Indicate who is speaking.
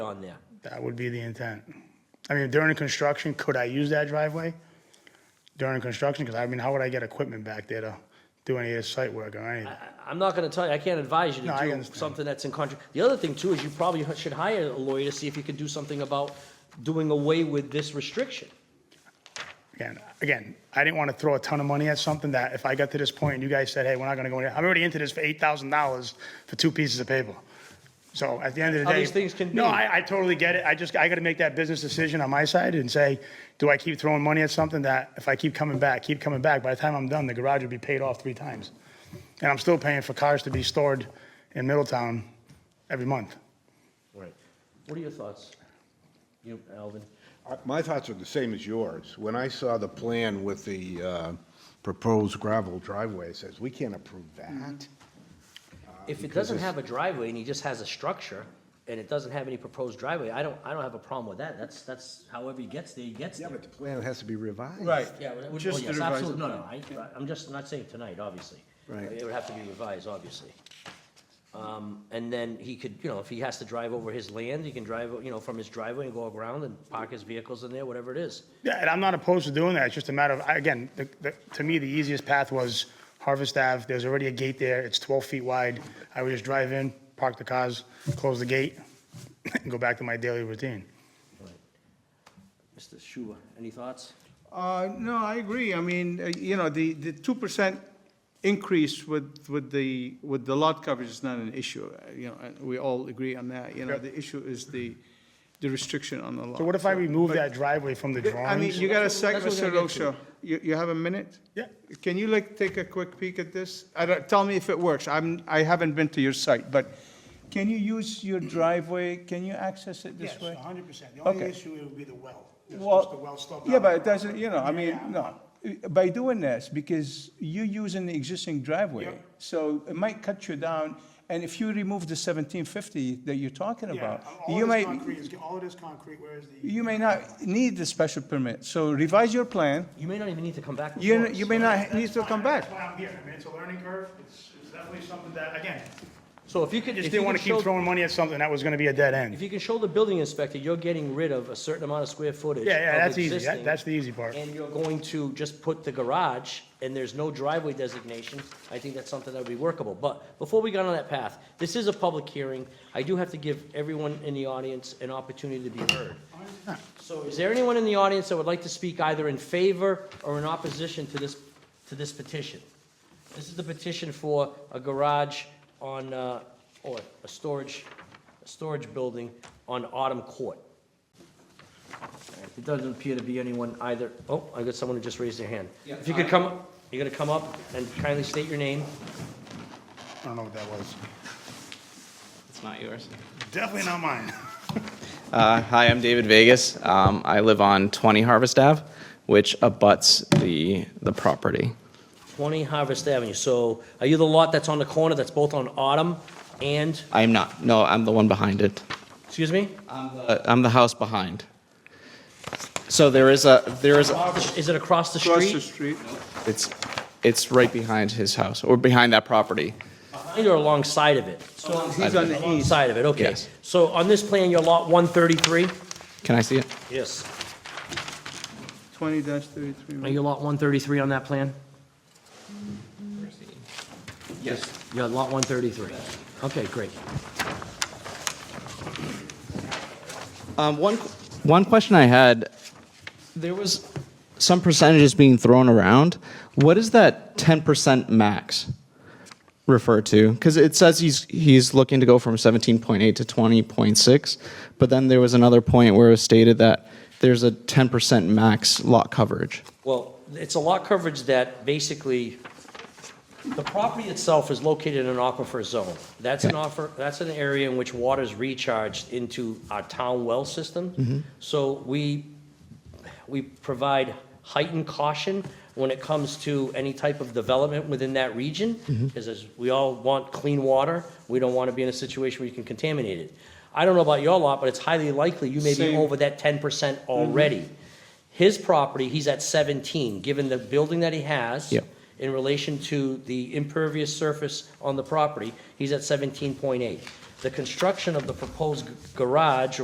Speaker 1: on there.
Speaker 2: That would be the intent. I mean, during construction, could I use that driveway? During construction, because I mean, how would I get equipment back there to do any of this site work or anything?
Speaker 1: I- I'm not gonna tell you, I can't advise you
Speaker 2: No,
Speaker 1: to
Speaker 2: I
Speaker 1: do
Speaker 2: understand.
Speaker 1: something that's in contract. The other thing too is you probably should hire a lawyer to see if you can do something about doing away with this restriction.
Speaker 2: Again, again, I didn't want to throw a ton of money at something that if I got to this point and you guys said, hey, we're not going to go in, I'm already into this for eight thousand dollars for two pieces of paper. So at the end of the
Speaker 1: How
Speaker 2: day.
Speaker 1: these things can
Speaker 2: No,
Speaker 1: be.
Speaker 2: I, I totally get it. I just, I got to make that business decision on my side and say, do I keep throwing money at something that if I keep coming back, keep coming back, by the time I'm done, the garage will be paid off three times. And I'm still paying for cars to be stored in Middletown every month.
Speaker 1: Right. What are your thoughts? You, Alvin?
Speaker 3: I- My thoughts are the same as yours. When I saw the plan with the uh, proposed gravel driveway, it says, we can't approve that.
Speaker 1: If it doesn't have a driveway and he just has a structure and it doesn't have any proposed driveway, I don't, I don't have a problem with that. That's, that's however he gets there, he gets
Speaker 3: Yeah,
Speaker 1: there.
Speaker 3: but the plan has to be revised.
Speaker 1: Yeah, well,
Speaker 4: Just
Speaker 1: yes,
Speaker 4: to revise
Speaker 1: absolutely,
Speaker 4: the
Speaker 1: no, no, I, I'm just not saying tonight, obviously.
Speaker 3: Right.
Speaker 1: It would have to be revised, obviously. Um, and then he could, you know, if he has to drive over his land, he can drive, you know, from his driveway and go around and park his vehicles in there, whatever it is.
Speaker 2: Yeah, and I'm not opposed to doing that. It's just a matter of, I- again, the, the, to me, the easiest path was Harvest Ave. There's already a gate there. It's 12 feet wide. I would just drive in, park the cars, close the gate, and go back to my daily routine.
Speaker 1: Mr. Schuber, any thoughts?
Speaker 4: Uh, No, I agree. I mean, uh, you know, the, the two percent increase with, with the, with the lot coverage is not an issue. uh, You know, and we all agree on that. You know, the issue is the, the restriction on the lot.
Speaker 2: So what if I remove
Speaker 4: but-
Speaker 2: that driveway from the drawings?
Speaker 4: I mean, you got a sec,
Speaker 1: That's what we're
Speaker 4: Mr.
Speaker 1: gonna get to.
Speaker 4: Rocha. You, you have a minute?
Speaker 2: Yeah.
Speaker 4: Can you like take a quick peek at this? I don't, tell me if it works. I'm, I haven't been to your site, but can you use your driveway? Can you access it this way?
Speaker 2: hundred percent. The
Speaker 4: only Okay. issue
Speaker 2: would be the well.
Speaker 4: Well, yeah, but it doesn't, you know, I mean, no, by doing this, because you're using the existing driveway, so it might cut you down, and if you remove the seventeen fifty that you're talking about, you might,
Speaker 2: all of this concrete, where is the?
Speaker 4: you may not need the special permit, so revise your plan,
Speaker 1: You may not even need to come back. before
Speaker 4: you,
Speaker 1: us.
Speaker 4: you may not need to come back.
Speaker 2: That's why I'm here. I mean, it's a learning curve. It's, it's definitely something that, again,
Speaker 1: So if you could,
Speaker 2: just
Speaker 1: if you
Speaker 2: didn't want
Speaker 1: could
Speaker 2: to keep
Speaker 1: show,
Speaker 2: throwing money at something that was going to be a dead end.
Speaker 1: if you can show the building inspector, you're getting rid of a certain amount of square footage.
Speaker 2: Yeah, yeah,
Speaker 1: of
Speaker 2: that's easy. That-
Speaker 1: existing,
Speaker 2: That's the easy part.
Speaker 1: And you're going to just put the garage, and there's no driveway designation, I think that's something that would be workable. But before we got on that path, this is a public hearing, I do have to give everyone in the audience an opportunity to be heard. So is there anyone in the audience that would like to speak either in favor or in opposition to this, to this petition? This is the petition for a garage on, uh, or a storage, a storage building on Autumn Court. It doesn't appear to be anyone either. Oh, I got someone who just raised their hand. If you could
Speaker 4: uh,
Speaker 1: come, you're gonna come up and kindly state your name.
Speaker 2: I don't know what that was.
Speaker 5: It's not yours.
Speaker 2: Definitely not mine.
Speaker 5: Uh, hi, I'm David Vegas. Um, I live on 20 Harvest Ave, which abuts the the property.
Speaker 1: 20 Harvest Avenue. So are you the lot that's on the corner that's both on Autumn and,
Speaker 5: I am not. No, I'm the one behind it.
Speaker 1: excuse me?
Speaker 5: I'm the, I'm the house behind. So there is a there is a,
Speaker 1: Is it across the
Speaker 4: Across the
Speaker 1: street?
Speaker 4: street,
Speaker 5: it's it's right behind his house or behind that property.
Speaker 1: Behind or alongside of it?
Speaker 4: so he's on the east.
Speaker 1: Alongside of it, okay.
Speaker 5: Yes.
Speaker 1: So on this plan, you're lot 133?
Speaker 5: Can I see it?
Speaker 1: Yes.
Speaker 4: Twenty thirty-three.
Speaker 1: Are you lot 133 on that plan?
Speaker 5: Yes.
Speaker 1: Yeah, lot 133. Okay, great.
Speaker 5: Um, one, one question I had, there was some percentages being thrown around. What is that 10% max refer to? Because it says he's, he's looking to go from 17.8 to 20.6, but then there was another point where it was stated that there's a 10% max lot coverage.
Speaker 1: Well, it's a lot coverage that basically, the property itself is located in an aquifer zone. That's an offer, that's an area in which water is recharged into our town well system. So we, we provide heightened caution when it comes to any type of development within that region, because as we all want clean water, we don't want to be in a situation where you can contaminate it. I don't know about your lot, but it's highly likely you may be
Speaker 4: Same.
Speaker 1: over that ten percent already. His property, he's at seventeen, given the building that he has.
Speaker 5: Yep.
Speaker 1: In relation to the impervious surface on the property, he's at seventeen point eight. The construction of the proposed g- garage